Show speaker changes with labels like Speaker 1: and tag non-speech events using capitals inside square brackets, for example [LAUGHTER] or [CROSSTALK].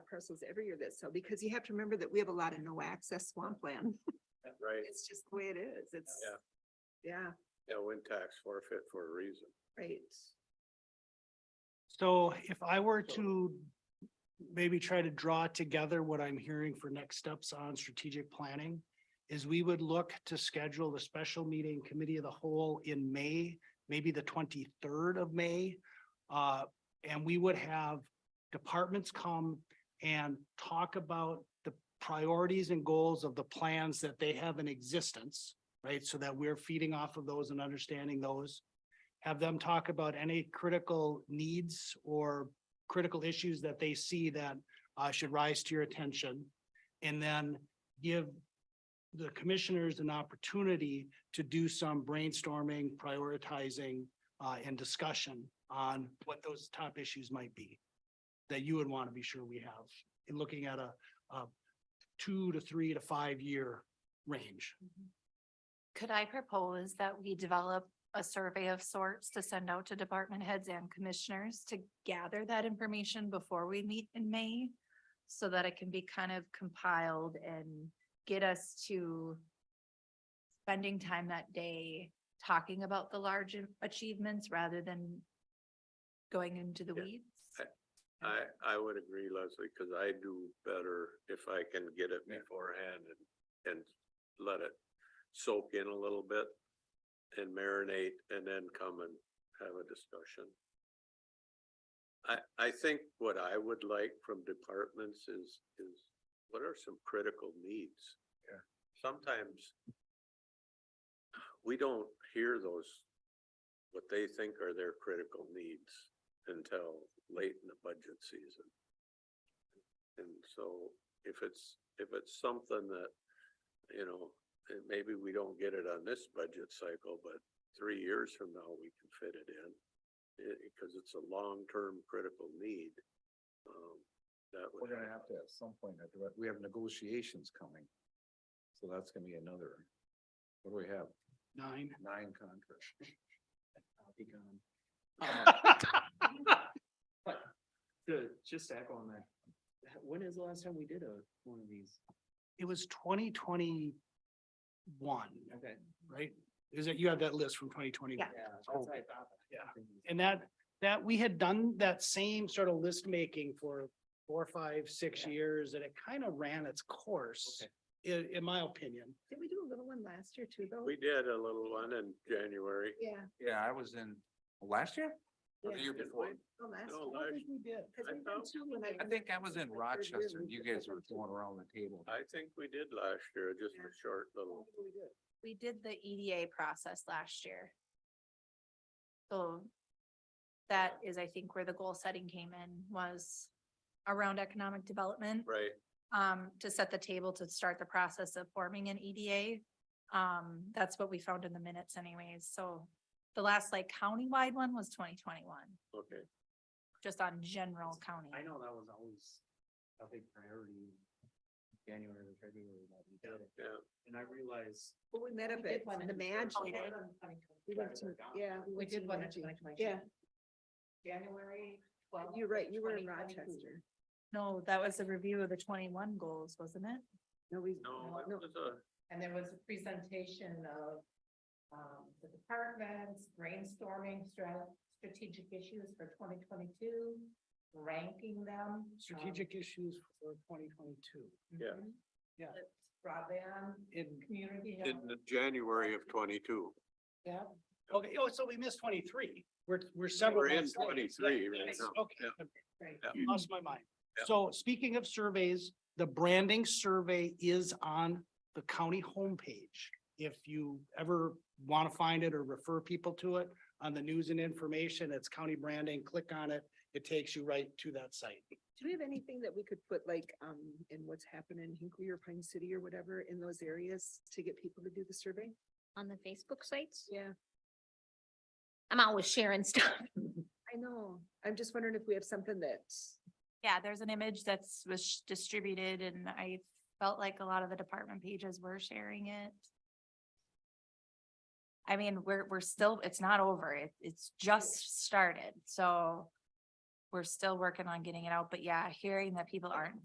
Speaker 1: parcels every year that sell, because you have to remember that we have a lot of no access swampland. [LAUGHS]
Speaker 2: Right,
Speaker 1: It's just the way it is. It's,
Speaker 2: Yeah.
Speaker 1: yeah,
Speaker 2: yeah, wind tax forfeit for a reason.
Speaker 1: right.
Speaker 3: So if I were to maybe try to draw together what I'm hearing for next steps on strategic planning is we would look to schedule the special meeting committee of the whole in May, maybe the twenty-third of May. Uh, and we would have departments come and talk about the priorities and goals of the plans that they have in existence, right? So that we're feeding off of those and understanding those have them talk about any critical needs or critical issues that they see that uh, should rise to your attention. And then give the commissioners an opportunity to do some brainstorming, prioritizing, uh, and discussion on what those top issues might be that you would want to be sure we have in looking at a, a two to three to five year range. [LAUGHS]
Speaker 2: Mm-hmm.
Speaker 4: Could I propose that we develop a survey of sorts to send out to department heads and commissioners to gather that information before we meet in May? So that it can be kind of compiled and get us to spending time that day talking about the large a- achievements rather than going into the
Speaker 2: Yeah.
Speaker 4: weeds?
Speaker 2: I, I would agree, Leslie, because I do better if I can get it beforehand and, and let it soak in a little bit and marinate and then come and have a discussion. I, I think what I would like from departments is, is what are some critical needs?
Speaker 5: Yeah.
Speaker 2: Sometimes we don't hear those, what they think are their critical needs until late in the budget season. And so if it's, if it's something that, you know, eh, maybe we don't get it on this budget cycle, but three years from now, we can fit it in. eh, because it's a long-term critical need. um, That
Speaker 5: We're
Speaker 2: would.
Speaker 5: gonna have to at some point, address- we have negotiations coming. So that's gonna be another, what do we have?
Speaker 3: Nine.
Speaker 5: Nine contracts.
Speaker 6: I'll be
Speaker 5: [LAUGHS]
Speaker 6: gone. Uh, But to just to echo on that, h- when is the last time we did a, one of these?
Speaker 3: It was twenty twenty-one,
Speaker 6: Okay.
Speaker 3: right? Is that, you have that list from twenty twenty?
Speaker 4: Yeah.
Speaker 6: Yeah, that's
Speaker 3: Oh,
Speaker 6: what I thought.
Speaker 3: yeah. And that, that, we had done that same sort of list making for four, five, six
Speaker 6: Yeah.
Speaker 3: years, and it kind of ran its course,
Speaker 6: Okay.
Speaker 3: in, in my opinion.
Speaker 1: Did we do a little one last year too, though?
Speaker 2: We did a little one in January.
Speaker 1: Yeah.
Speaker 5: Yeah, I was in, last year? Or the
Speaker 1: yeah.
Speaker 5: year before?
Speaker 1: Oh, last
Speaker 2: No,
Speaker 1: year.
Speaker 2: last- I think
Speaker 3: we did.
Speaker 1: Cause
Speaker 2: I
Speaker 1: we've done
Speaker 2: thought-
Speaker 1: two when
Speaker 5: I think I was in
Speaker 1: Like, third year
Speaker 5: Rochester.
Speaker 1: we
Speaker 5: You
Speaker 1: did
Speaker 5: guys
Speaker 1: that
Speaker 5: were
Speaker 1: one too.
Speaker 5: going around the table.
Speaker 2: I think we did last year, just a short little,
Speaker 4: We did the EDA process last year. So that is, I think, where the goal setting came in was around economic development,
Speaker 2: right?
Speaker 4: um, to set the table to start the process of forming an EDA. Um, that's what we found in the minutes anyways. So the last like countywide one was twenty twenty-one,
Speaker 2: Okay,
Speaker 4: just on general county.
Speaker 6: I know that was always a big priority. in January or February that we did it.
Speaker 2: yeah.
Speaker 6: And I realized.
Speaker 1: Well, we met up
Speaker 7: We did
Speaker 1: at
Speaker 7: one in-
Speaker 1: the Magi.
Speaker 4: Oh, yeah.
Speaker 1: We went to, yeah.
Speaker 7: We
Speaker 1: went to
Speaker 7: did one in
Speaker 1: Magi.
Speaker 7: twenty twenty.
Speaker 1: Yeah,
Speaker 7: January twelfth.
Speaker 1: you're right, you were in Rochester.
Speaker 4: No, that was a review of the twenty-one goals, wasn't it?
Speaker 1: No, we.
Speaker 2: No, it was a,
Speaker 7: And there was a presentation of um, the departments brainstorming strat- strategic issues for twenty twenty-two, ranking them. um,
Speaker 3: Strategic issues for twenty twenty-two.
Speaker 2: Yeah.
Speaker 7: mhm,
Speaker 3: Yeah.
Speaker 7: the Broadband,
Speaker 3: In,
Speaker 7: community.
Speaker 2: in
Speaker 7: health,
Speaker 2: the January of twenty-two.
Speaker 7: yeah.
Speaker 3: okay, oh, so we missed twenty-three. We're, we're several.
Speaker 2: We're in
Speaker 3: months late.
Speaker 2: twenty-three
Speaker 3: Yeah,
Speaker 2: right
Speaker 3: yes,
Speaker 2: now.
Speaker 3: Okay,
Speaker 2: Yeah.
Speaker 7: Right.
Speaker 2: Yeah.
Speaker 3: lost my mind.
Speaker 2: Yeah.
Speaker 3: So speaking of surveys, the branding survey is on the county homepage. If you ever want to find it or refer people to it on the news and information, it's county branding, click on it. It takes you right to that site.
Speaker 1: Do we have anything that we could put like, um, in what's happening in Hinkley or Pine City or whatever in those areas to get people to do the survey?
Speaker 8: on the Facebook sites.
Speaker 1: Yeah,
Speaker 8: I'm always sharing [LAUGHS] stuff.
Speaker 1: I know. I'm just wondering if we have something that,
Speaker 4: Yeah, there's an image that's was sh- distributed and I felt like a lot of the department pages were sharing it. I mean, we're, we're still, it's not over. It, it's just started, so we're still working on getting it out, but yeah, hearing that people aren't